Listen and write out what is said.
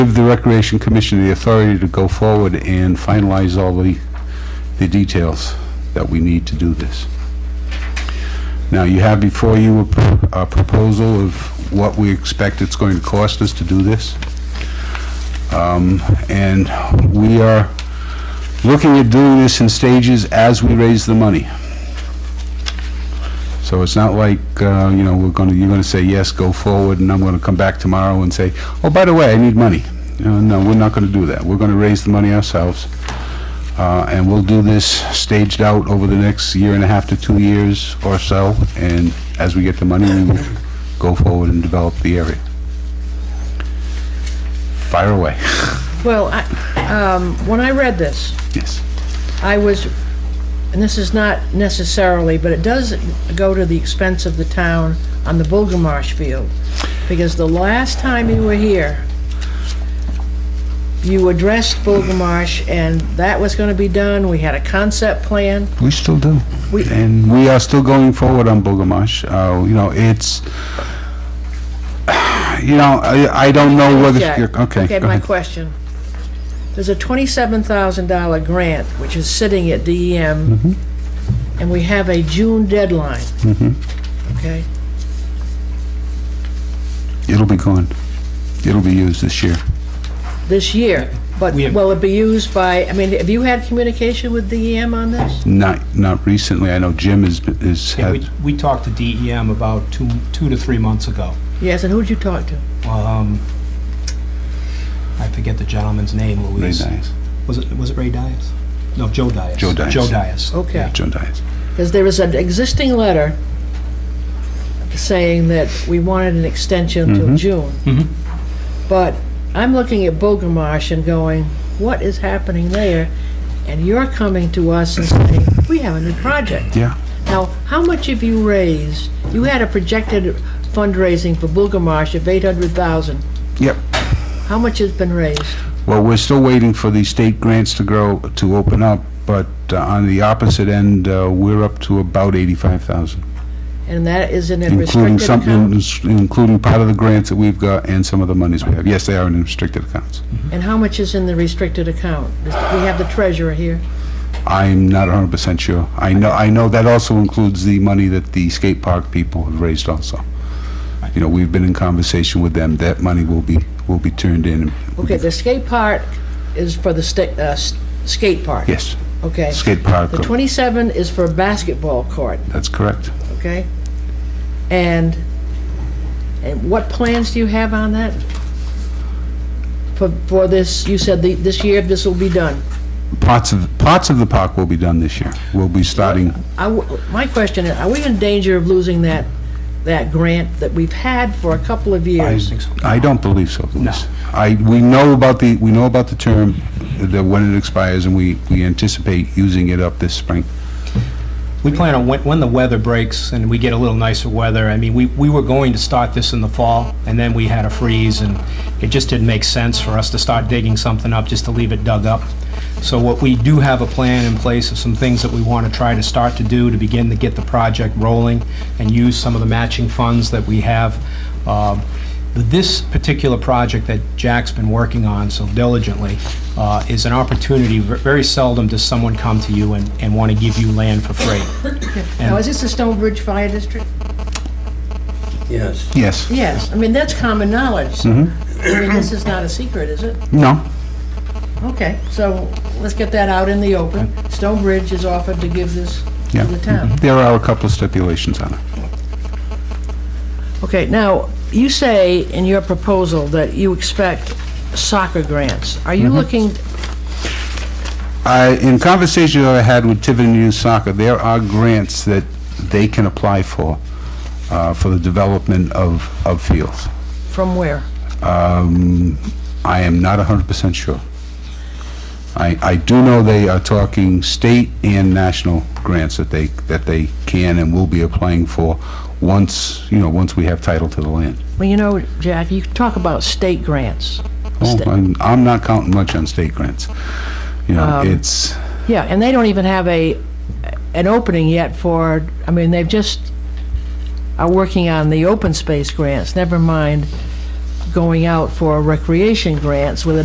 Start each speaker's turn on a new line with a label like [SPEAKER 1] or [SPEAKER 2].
[SPEAKER 1] give the Recreation Commission the authority to go forward and finalize all the, the details that we need to do this. Now, you have before you a pro- a proposal of what we expect it's going to cost us to do this. Um, And we are looking at doing this in stages as we raise the money. So it's not like, uh, you know, we're going to, you're going to say, yes, go forward, and I'm going to come back tomorrow and say, oh, by the way, I need money. Uh, No, we're not going to do that. We're going to raise the money ourselves, Uh, and we'll do this staged out over the next year and a half to two years or so, and as we get the money, we will go forward and develop the area. Fire away.
[SPEAKER 2] Well, I, um, when I read this,
[SPEAKER 1] Yes.
[SPEAKER 2] I was, and this is not necessarily, but it does go to the expense of the town on the Bulgamarsh field. Because the last time you were here, you addressed Bulgamarsh, and that was gonna be done, we had a concept plan.
[SPEAKER 1] We still do.
[SPEAKER 2] We-
[SPEAKER 1] And we are still going forward on Bogamash. Uh, you know, it's, you know, I, I don't know whether,
[SPEAKER 2] Jack,
[SPEAKER 1] you're, okay,
[SPEAKER 2] Okay,
[SPEAKER 1] go
[SPEAKER 2] my
[SPEAKER 1] ahead.
[SPEAKER 2] question. There's a twenty-seven thousand dollar grant, which is sitting at DEM,
[SPEAKER 1] Mm-hmm.
[SPEAKER 2] and we have a June deadline. Okay?
[SPEAKER 1] It'll be gone. It'll be used this year.
[SPEAKER 2] this year, but
[SPEAKER 3] We have-
[SPEAKER 2] will it be used by, I mean, have you had communication with DEM on this?
[SPEAKER 1] Not, not recently. I know Jim has, been- has
[SPEAKER 3] Yeah, we,
[SPEAKER 1] had,
[SPEAKER 3] we talked to DEM about two, two to three months ago.
[SPEAKER 2] Yes, and who'd you talk to?
[SPEAKER 3] Um, I forget the gentleman's name,
[SPEAKER 1] Ray
[SPEAKER 3] Louise.
[SPEAKER 1] Dias.
[SPEAKER 3] Was it, was it Ray Dias? No, Joe Dias.
[SPEAKER 1] Joe Dias.
[SPEAKER 3] Joe Dias.
[SPEAKER 1] Yeah,
[SPEAKER 2] Okay,
[SPEAKER 1] Joe Dias.
[SPEAKER 2] because there is an existing letter saying that we wanted an extension till
[SPEAKER 3] Mhm.
[SPEAKER 2] June. But I'm looking at Bogomarsh and going, what is happening there? And you're coming to us and saying, we have a new project.
[SPEAKER 1] Yeah.
[SPEAKER 2] Now, how much have you raised? You had a projected fundraising for Bogomarsh of 800,000.
[SPEAKER 1] Yep.
[SPEAKER 2] How much has been raised?
[SPEAKER 1] Well, we're still waiting for the state grants to grow, to open up, but uh, on the opposite end, uh, we're up to about 85,000.
[SPEAKER 2] And that is in a
[SPEAKER 1] Including
[SPEAKER 2] restricted
[SPEAKER 1] something,
[SPEAKER 2] account?
[SPEAKER 1] including part of the grants that we've got and some of the monies we have. Yes, they are in restricted accounts.
[SPEAKER 2] And how much is in the restricted account? Is- We have the treasurer here.
[SPEAKER 1] I'm not 100% sure. I know, I know that also includes the money that the skate park people have raised also. You know, we've been in conversation with them, that money will be, will be turned in.
[SPEAKER 2] Okay, the skate park is for the sta- uh, s- skate park?
[SPEAKER 1] Yes,
[SPEAKER 2] Okay.
[SPEAKER 1] skate park,
[SPEAKER 2] The 27 is for a basketball court,
[SPEAKER 1] that's correct.
[SPEAKER 2] okay? And, and what plans do you have on that? For, for this, you said the- this year this will be done.
[SPEAKER 1] Parts of, parts of the park will be done this year. We'll be starting,
[SPEAKER 2] I w my question is, are we in danger of losing that, that grant that we've had for a couple of
[SPEAKER 1] I
[SPEAKER 2] years?
[SPEAKER 1] I don't believe so, Louise. I, we know about the, we know about the term, that when it expires, and we, we anticipate using it up this spring.
[SPEAKER 3] We plan on, when, when the weather breaks and we get a little nicer weather, I mean, we, we were going to start this in the fall, and then we had a freeze, and it just didn't make sense for us to start digging something up, just to leave it dug up. So what we do have a plan in place of some things that we want to try to start to do to begin to get the project rolling and use some of the matching funds that we have. Um, This particular project that Jack's been working on so diligently uh, is an opportunity, Ver- very seldom does someone come to you and, and want to give you land for free.
[SPEAKER 2] Now, is this the Stonebridge Fire District?
[SPEAKER 4] Yes.
[SPEAKER 1] Yes?
[SPEAKER 2] Yes, I mean, that's common knowledge. so- I mean, this is not a secret, is it?
[SPEAKER 1] No?
[SPEAKER 2] Okay, so let's get that out in the open. Stonebridge is offered to give this to
[SPEAKER 1] Yeah.
[SPEAKER 2] the town.
[SPEAKER 1] There are a couple of stipulations on it.
[SPEAKER 2] Okay, now, you say in your proposal that you expect soccer grants. Are you looking,
[SPEAKER 1] I, in conversation that I had with Tiverton Youth Soccer, there are grants that they can apply for, uh, for the development of, of fields.
[SPEAKER 2] from where?
[SPEAKER 1] Um, I am not 100% sure. I, I do know they are talking state and national grants that they, that they can and will be applying for once, you know, once we have title to the land.
[SPEAKER 2] Well, you know, Jack, you talk about state grants.
[SPEAKER 1] Oh,
[SPEAKER 2] Sta-
[SPEAKER 1] I'm, I'm not counting much on state grants. You know, it's,
[SPEAKER 2] Yeah, and they don't even have a, an opening yet for, I mean, they've just, are working on the open space grants, never mind going out for recreation grants with a